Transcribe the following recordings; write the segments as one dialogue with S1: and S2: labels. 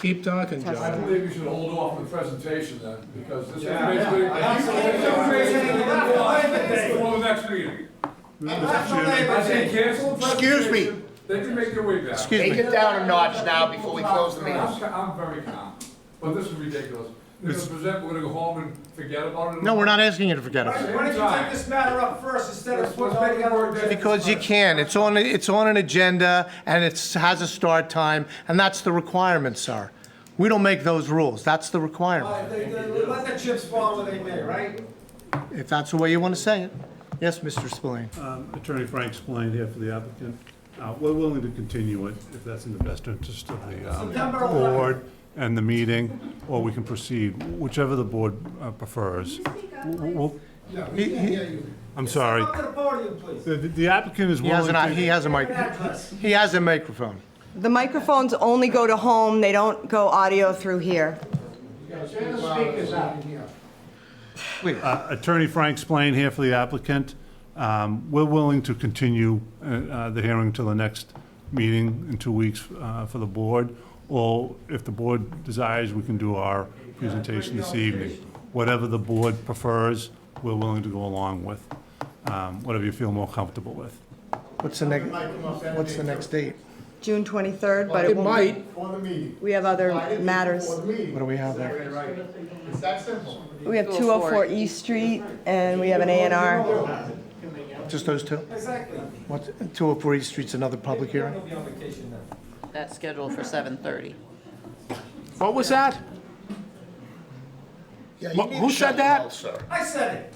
S1: Keep talking,
S2: Test.
S3: I
S1: John.
S3: believe you should hold off the presentation then, because this is
S4: Yeah.
S3: basically.
S4: Absolutely.
S3: This information is gonna go on Before the next meeting. I say cancel the
S5: Excuse me.
S3: presentation, They can make their way back.
S5: Excuse
S2: Take
S5: me.
S2: it down a notch now before we close the
S3: I'm-
S2: meeting.
S3: I'm very calm, but this is ridiculous. We're gonna present, we're gonna go home and forget about it.
S5: No, we're not asking you to forget
S4: Why
S5: it.
S4: why don't you take this matter up first instead
S3: That's
S4: of
S3: what's
S4: putting all
S3: making
S4: the
S3: it
S4: other
S3: work.
S4: agenda?
S5: Because you can, it's on, it's on an agenda, and it has a start time, and that's the requirement, sir. We don't make those rules, that's the
S4: All
S5: requirement,
S4: right, they- they- Let the chips fall where they may, right?
S5: if that's the way you want to say it. Yes, Mr. Spillane?
S1: Uh,
S6: Um, Attorney Frank Spillane here for the applicant. Uh, We're willing to continue it if that's in the best interest of the um,
S4: September 11th.
S6: board and the meeting, or we can proceed, whichever the board uh, prefers. W- w- I'm sorry.
S4: Come to the podium, please.
S6: The- The applicant is
S5: He
S6: willing
S5: has an, he
S6: to...
S5: has a mic,
S4: Address.
S5: he has a microphone.
S2: The microphones only go to home, they don't go audio through here.
S6: Uh, Attorney Frank Spillane here for the applicant. Um, We're willing to continue uh, uh, the hearing till the next meeting in two weeks uh, for the board, or if the board desires, we can do our presentation this evening. Whatever the board prefers, we're willing to go along with, um, whatever you feel more comfortable with.
S5: What's the next, what's the next date?
S2: June 23rd, but it
S1: It
S2: won't,
S1: might,
S7: For the meeting.
S2: we have other matters.
S5: What do we have there?
S7: It's that simple.
S2: We have 204 East Street, and we have an A and R.
S5: Just those two?
S4: Exactly.
S5: What, 204 East Street's another public hearing?
S4: You'll be on vacation then.
S8: That's scheduled for 7:30.
S1: what was that? Wha- Who said that?
S4: I said it.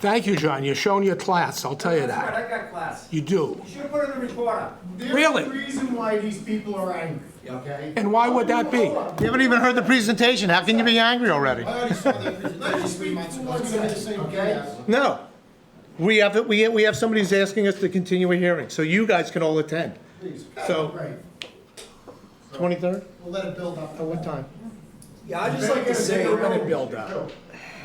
S1: Thank you, John, you're showing your class, I'll tell you
S4: That's right,
S1: that.
S4: I got class.
S1: You do.
S4: You should have put it in the recorder.
S1: Really?
S7: There's a reason why these people are angry, okay?
S1: And why would that be?
S5: You haven't even heard the presentation, how can you be angry already?
S7: Let me speak for one second, okay?
S5: No. We have, we, we have somebody who's asking us to continue a hearing, so you guys can all attend. So,
S7: Right,
S5: 23rd,
S7: we'll let it build up.
S5: at what time?
S9: Yeah, I'd just like to say,
S7: Better
S9: we're
S7: get a
S9: gonna
S7: bigger
S9: build
S7: room.
S9: up.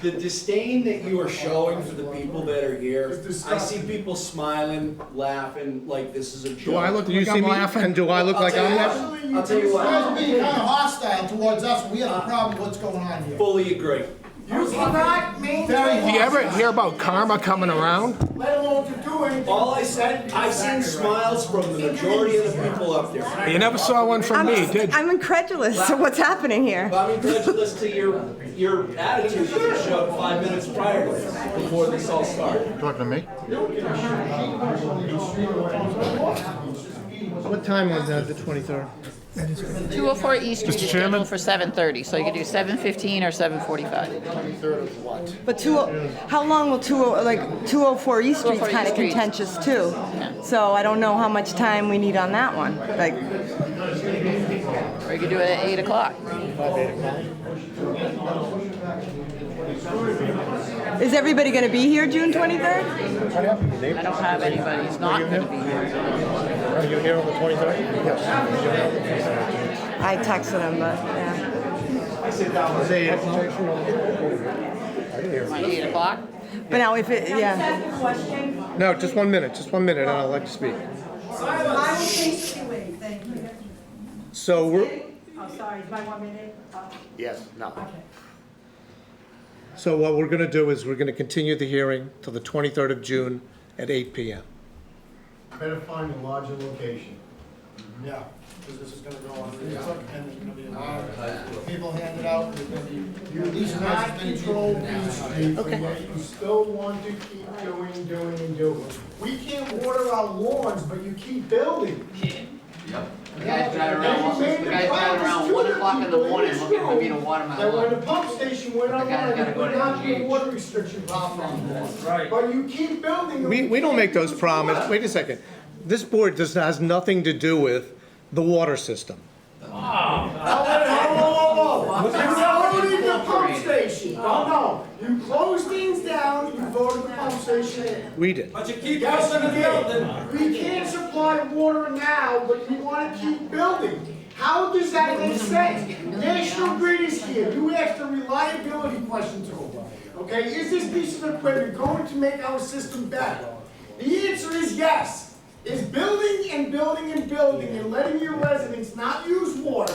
S9: The disdain that you are showing for the people that are here, I see people smiling, laughing, like this is a joke.
S1: Do I look
S5: Do you
S1: like
S5: see
S1: I'm
S5: me-
S1: laughing?
S5: And do I look
S9: I'll
S5: like
S9: tell
S5: I'm
S9: you
S5: laughing?
S9: what,
S7: Actually,
S9: I'll tell you
S7: you guys
S9: what,
S7: being kind of hostile towards us, we have a problem, what's going on here?
S9: fully agree.
S7: You cannot maintain.
S1: Do you ever hear about karma coming around?
S7: Let alone to do anything.
S9: All I said, I've seen smiles from the majority of the people up there.
S1: You never saw one from
S2: I'm
S1: me, did you?
S2: I'm incredulous to what's happening here.
S9: But I'm incredulous to your, your attitude that you showed five minutes prior to this, before this all started.
S5: Talking to me? What time was that, the 23rd?
S8: 204 East Street is
S6: Chairman?
S8: scheduled for 7:30, so you could do 7:15 or 7:45.
S2: But two, oh, how long will two, oh, like, 204 East Street's
S8: 204
S2: kind of
S8: East Street.
S2: contentious too. So I don't know how much time we need on that one. Like,
S8: Or you could do it at 8 o'clock.
S2: is everybody going to be here June 23rd?
S8: I don't have anybody who's not going to be here.
S5: Are you here on the 23rd? Yes.
S2: I texted him, but, yeah.
S8: Want 8 o'clock?
S2: But now if it, yeah.
S5: No, just one minute, just one minute, and I'll let you speak.
S10: I will patiently wait, thank you.
S5: So we're,
S10: I'm sorry, is my one minute up?
S9: Yes, no.
S5: so what we're gonna do is we're gonna continue the hearing till the 23rd of June at 8 PM.
S7: Better find a larger location.
S4: Yeah, because this is gonna go on, and there's gonna be
S7: People hand it out, they're gonna be, you cannot control Beach Street, yet you still want to keep doing, doing, and doing. We can't water our lawns, but you keep building.
S8: The guys drive around, the guys drive around 1 o'clock in the morning looking for me to water my
S7: And when
S8: lawn.
S7: the pump station went
S8: guy's
S7: online,
S8: gotta
S7: you
S8: go
S7: would
S8: to
S7: not be a
S8: NGH.
S7: water restriction problem Right. But you keep building. and
S5: We, we don't make
S7: can't
S5: those
S7: do
S5: promises,
S7: that.
S5: wait a second. This board does, has nothing to do with the water system.
S7: You voted the pump station. No, no. You closed things down, you voted the pump station in.
S5: We did.
S4: But you keep
S7: Yes,
S4: building and building.
S7: you did. We can't supply water now, but you want to keep building. How does that make sense? National Grid is here. You asked a reliability question to them. Okay, is this piece of equipment going to make our system better? The answer is yes. Is building and building and building and letting your residents not use water